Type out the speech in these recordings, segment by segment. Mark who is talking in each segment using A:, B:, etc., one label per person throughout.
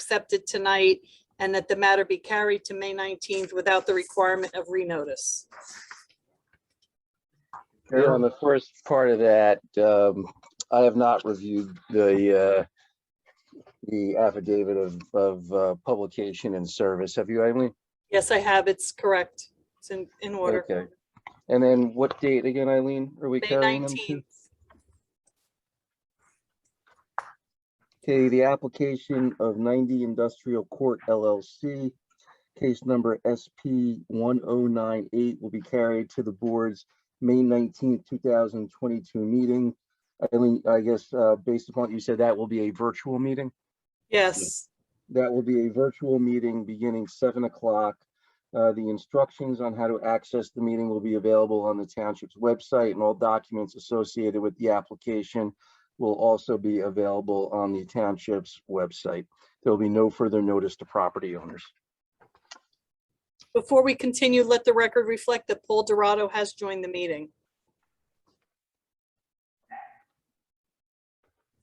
A: accepted tonight and that the matter be carried to May 19th without the requirement of renotice.
B: Yeah, on the first part of that, um, I have not reviewed the, uh, the affidavit of, of, uh, publication and service. Have you, Eileen?
A: Yes, I have. It's correct. It's in, in
B: Okay.
A: order.
B: And then what date again, Eileen? Are we
A: May
B: carrying them to?
A: 19th.
B: Okay, the application of 90 Industrial Court LLC, case number SP 1098 will be carried to the board's May 19th, 2022 meeting. Eileen, I guess, uh, based upon what you said, that will be a virtual meeting?
A: Yes,
B: That will be a virtual meeting beginning seven o'clock. Uh, The instructions on how to access the meeting will be available on the township's website and all documents associated with the application will also be available on the township's website. There will be no further notice to property owners.
A: before we continue, let the record reflect that Paul Dorado has joined the meeting.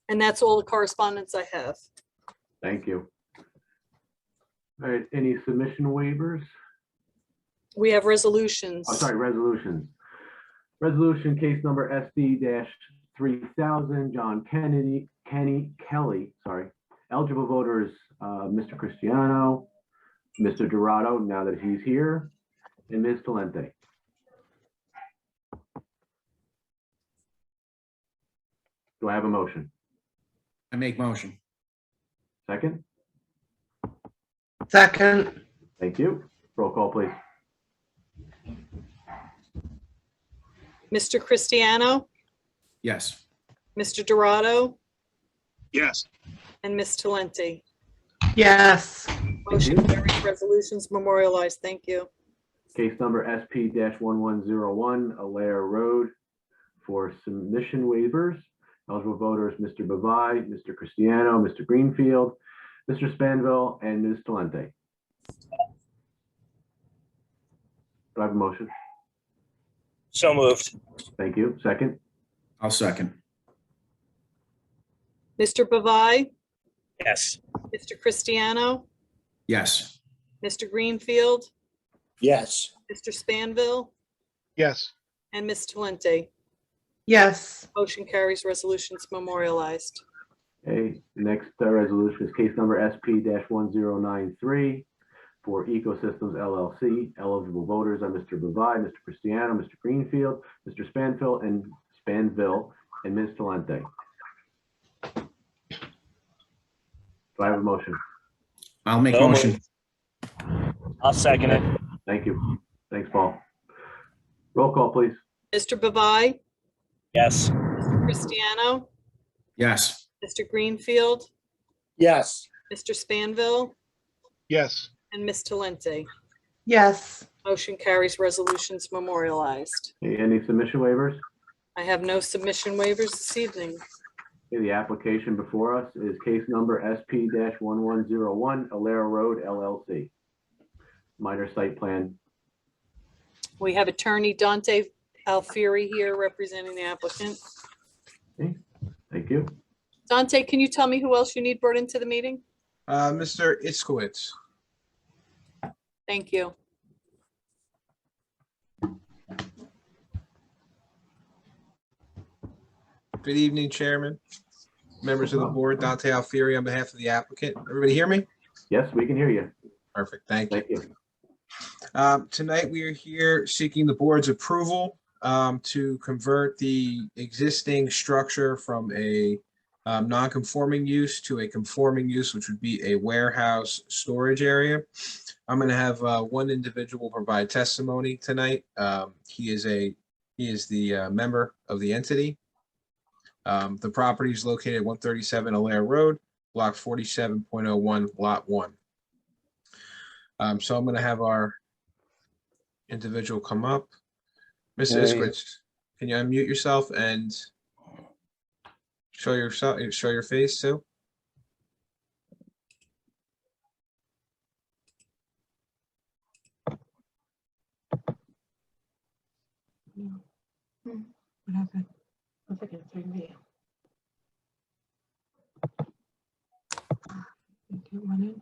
A: And that's all the correspondence I have.
C: Thank you. All right, any submission waivers?
A: We have resolutions.
C: I'm sorry, resolutions. Resolution case number SD three thousand, John Kennedy, Kenny Kelly, sorry. Eligible voters, uh, Mr. Cristiano, Mr. Dorado, now that he's here, and Ms. Talente. Do I have a motion?
D: I make motion.
C: Second?
E: Second,
C: Thank you. Roll call, please.
A: Mr. Cristiano,
D: Yes.
A: Mr. Dorado,
F: Yes,
A: and Ms. Talenti.
E: yes,
A: Motion carries, resolutions memorialized, thank you.
C: Case number SP one one zero one, Alair Road for submission waivers. Eligible voters, Mr. Bavai, Mr. Cristiano, Mr. Greenfield, Mr. Spanville, and Ms. Talente. Do I have a motion?
F: so moved.
C: Thank you. Second?
D: I'll second.
A: Mr. Bavai,
F: Yes.
A: Mr. Cristiano,
D: Yes.
A: Mr. Greenfield,
F: Yes.
A: Mr. Spanville,
F: Yes.
A: and Ms. Talenti.
E: yes,
A: Motion carries, resolutions memorialized.
C: Okay, next uh, resolution is case number SP one zero nine three for Ecosystems LLC. Eligible voters are Mr. Bavai, Mr. Cristiano, Mr. Greenfield, Mr. Spanville, and Spanville, and Ms. Talente. Do I have a motion?
D: I'll make
F: So
D: motion.
F: moved. I'll second it.
C: Thank you. Thanks, Paul. Roll call, please.
A: Mr. Bavai,
F: Yes.
A: Mr. Cristiano,
D: Yes.
A: Mr. Greenfield,
F: Yes.
A: Mr. Spanville,
F: Yes.
A: and Ms. Talenti.
E: yes,
A: Motion carries, resolutions memorialized.
C: Okay, Any submission waivers?
A: I have no submission waivers this evening.
C: Okay, The application before us is case number SP one one zero one, Alera Road LLC. Minor site plan.
A: We have attorney Dante Alfieri here representing the applicant.
C: Thank you.
A: Dante, can you tell me who else you need brought into the meeting?
G: Uh, Mr. Iskowitz.
A: Thank you.
G: Good evening, Chairman, members of the board, Dante Alfieri on behalf of the applicant. Everybody hear me?
C: Yes, we can hear you.
G: Perfect, thank you.
C: Thank you.
G: Um, Tonight, we are here seeking the board's approval um, to convert the existing structure from a um, non-conforming use to a conforming use, which would be a warehouse storage area. I'm going to have uh, one individual provide testimony tonight. Um, He is a, he is the uh, member of the entity. Um, The property is located at 137 Alair Road, Block 47.01, Lot 1. Um, So I'm going to have our individual come up. Mr.
B: Hey.
G: Iskowitz, can you unmute yourself and show yourself, show your face too?
H: What happened? I think it's me. Okay. you wanted.